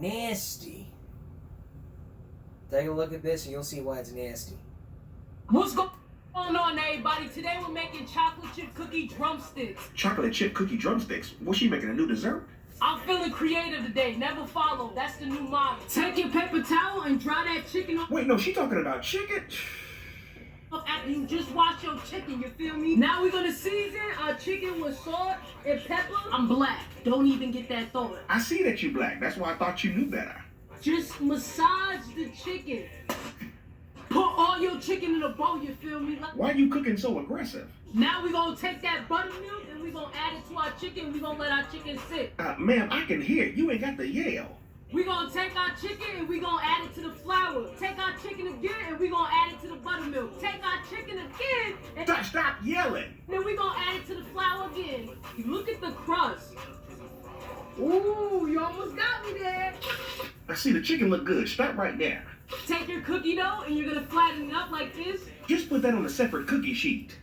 nasty. Take a look at this and you'll see why it's nasty. What's go- going on, everybody? Today we're making chocolate chip cookie drumsticks. Chocolate chip cookie drumsticks. Was she making a new dessert? I'm feeling creative today. Never follow. That's the new motto. Take your paper towel and dry that chicken off Wait, no, she talking about chicken? after you just wash your chicken. You feel me? Now we're gonna season our chicken with salt and pepper. I'm black. Don't even get that thought. I see that you black. That's why I thought you knew better. Just massage the chicken. Put all your chicken in a bowl. You feel me? Like- Why you cooking so aggressive? Now we're gonna take that buttermilk and we're gonna add it to our chicken. We're gonna let our chicken sit. Uh, ma'am, I can hear. You ain't got the yell. We're gonna take our chicken and we're gonna add it to the flour. Take our chicken again and we're gonna add it to the buttermilk. Take our chicken again and Stop, stop yelling. then we're gonna add it to the flour again. You Look at the crust. Ooh, you almost got me there. I see the chicken look good. Stop right there. Take your cookie dough and you're gonna flatten it up like this. Just put that on a separate cookie sheet.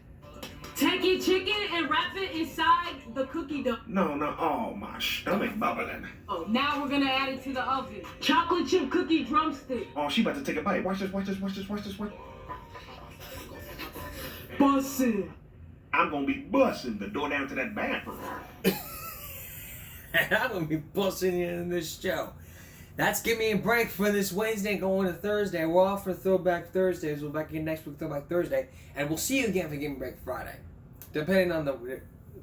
Take your chicken and wrap it inside the cookie dough. No, no. Oh, my stomach bubbling. Oh, now we're gonna add it to the oven. Chocolate chip cookie drumstick. Oh, she about to take a bite. Watch this, watch this, watch this, watch this, watch. Bussin'. I'm gonna be busting the door down to that bathroom. I'm gonna be busting you in this show. That's give me a break for this Wednesday going to Thursday. We're off for Throwback Thursdays. We'll be back again next week Throwback Thursday, and we'll see you again for Give Me a Break Friday, depending on the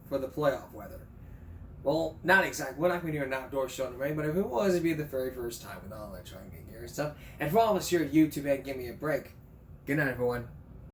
for the playoff weather. Well, not exactly. We're not gonna do an outdoor show in the rain, but if it was, it'd be the very first time with all electronic gear and stuff. And for all of us here at YouTube and Give Me a Break, good night, everyone.